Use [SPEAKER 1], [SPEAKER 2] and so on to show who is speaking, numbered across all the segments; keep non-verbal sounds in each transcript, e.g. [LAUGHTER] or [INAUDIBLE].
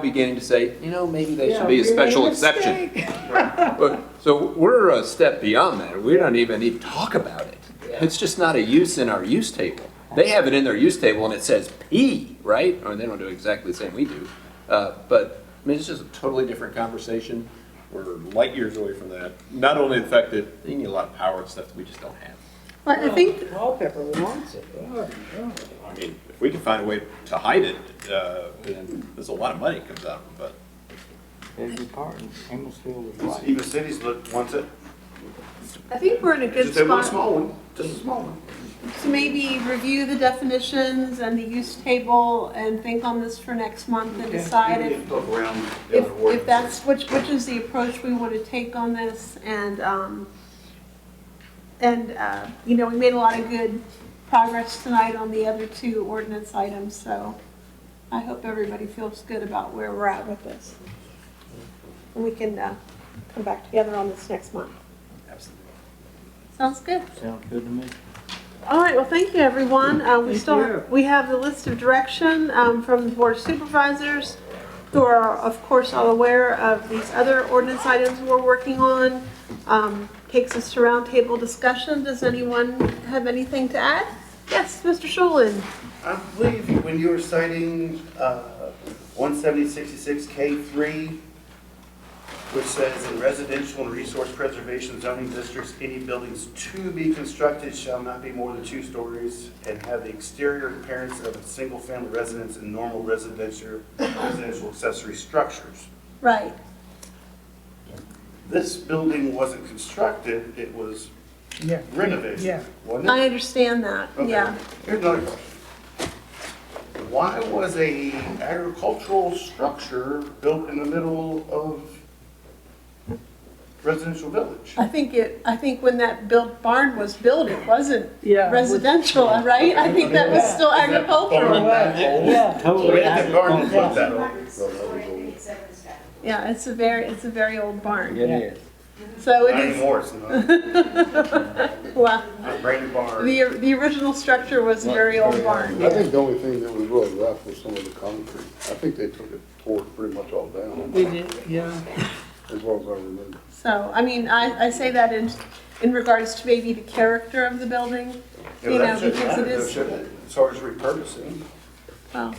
[SPEAKER 1] beginning to say, you know, maybe they
[SPEAKER 2] Yeah,
[SPEAKER 1] should be a
[SPEAKER 2] we made
[SPEAKER 1] special exception.
[SPEAKER 2] mistake.
[SPEAKER 1] [LAUGHS] But- So we're a step beyond that. We don't even need to talk about it. It's just not a use in our use table. They have it in their use table and it says P, right? Or they don't do exactly the same we do. Uh, But, I mean, it's just a totally different conversation. We're light years away from that. Not only the fact that you need a lot of power and stuff that we just don't have.
[SPEAKER 3] Well, I think,
[SPEAKER 2] Wallpaper wants it. Oh, no.
[SPEAKER 1] I mean, if we can find a way to hide it, uh, then there's a lot of money comes out, of it,
[SPEAKER 4] It'd be part in Emmitsville is like.
[SPEAKER 5] Even cities look, wants it,
[SPEAKER 3] I think we're in a good
[SPEAKER 5] just they want a
[SPEAKER 3] spot
[SPEAKER 5] small one, just a small one.
[SPEAKER 3] to maybe review the definitions and the use table and think on this for next month and decide
[SPEAKER 5] You
[SPEAKER 3] if,
[SPEAKER 5] can Look around the
[SPEAKER 3] if,
[SPEAKER 5] other
[SPEAKER 3] if
[SPEAKER 5] ordinances.
[SPEAKER 3] that's, which, which is the approach we want to take on this and, um, and, uh, you know, we made a lot of good progress tonight on the other two ordinance items, so I hope everybody feels good about where we're at with this. And we can, uh, come back together on this next month.
[SPEAKER 1] absolutely.
[SPEAKER 3] Sounds good.
[SPEAKER 4] Sounds good to me.
[SPEAKER 3] All right, well, thank you, everyone. Uh, We
[SPEAKER 2] Thank
[SPEAKER 3] still,
[SPEAKER 2] you.
[SPEAKER 3] we have the list of direction um, from the Board of Supervisors, who are, of course, all aware of these other ordinance items we're working on. Um, Takes us to roundtable discussion. Does anyone have anything to add? Yes, Mr. Shulin.
[SPEAKER 5] I believe when you were citing uh, one seventy sixty-six K three, which says in residential and resource preservation zoning districts, any buildings to be constructed shall not be more than two stories and have the exterior appearance of a single-family residence and normal residential, residential accessory structures.
[SPEAKER 3] Right.
[SPEAKER 5] This building wasn't constructed, it was
[SPEAKER 2] Yeah. Yeah.
[SPEAKER 5] renovated, wasn't it?
[SPEAKER 3] I understand that,
[SPEAKER 5] Okay.
[SPEAKER 3] yeah.
[SPEAKER 5] Here's another question. Why was a agricultural structure built in the middle of residential village?
[SPEAKER 3] I think it, I think when that built barn was built, it wasn't
[SPEAKER 2] Yeah.
[SPEAKER 3] residential, right? I think that was still
[SPEAKER 5] Is that barn
[SPEAKER 3] agricultural.
[SPEAKER 5] that old?
[SPEAKER 2] Yeah.
[SPEAKER 4] Totally.
[SPEAKER 5] Where did the garden put that
[SPEAKER 6] Forty-eight,
[SPEAKER 5] old?
[SPEAKER 6] seven, seven.
[SPEAKER 3] Yeah, it's a very, it's a very old barn.
[SPEAKER 4] It is.
[SPEAKER 3] So it
[SPEAKER 5] Not
[SPEAKER 3] is,
[SPEAKER 5] anymore, it's
[SPEAKER 3] [LAUGHS]
[SPEAKER 5] not.
[SPEAKER 3] well,
[SPEAKER 5] Not brand new barn.
[SPEAKER 3] the, the original structure was a very old barn.
[SPEAKER 7] I think the only thing that was really left was some of the concrete. I think they took it, tore it pretty much all down,
[SPEAKER 2] We did, yeah.
[SPEAKER 7] as well as I remember.
[SPEAKER 3] So, I mean, I, I say that in, in regards to maybe the character of the building, you know,
[SPEAKER 5] that shouldn't
[SPEAKER 3] because it
[SPEAKER 5] matter, though,
[SPEAKER 3] is,
[SPEAKER 5] shouldn't it? As far as repurposing.
[SPEAKER 3] well,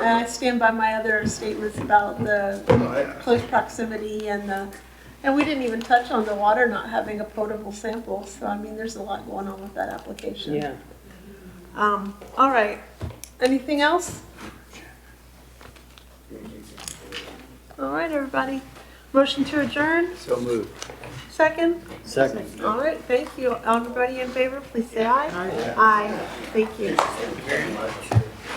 [SPEAKER 3] and I stand by my other statements about the
[SPEAKER 5] Oh, yeah.
[SPEAKER 3] close proximity and the, and we didn't even touch on the water not having a potable sample, so I mean, there's a lot going on with that application.
[SPEAKER 2] Yeah.
[SPEAKER 3] Um, all right, anything else? All right, everybody, motion to adjourn,
[SPEAKER 1] So moved.
[SPEAKER 3] second?
[SPEAKER 4] Second.
[SPEAKER 3] All right, thank you. Everybody in favor, please say aye. Aye. Thank you.
[SPEAKER 5] Very much.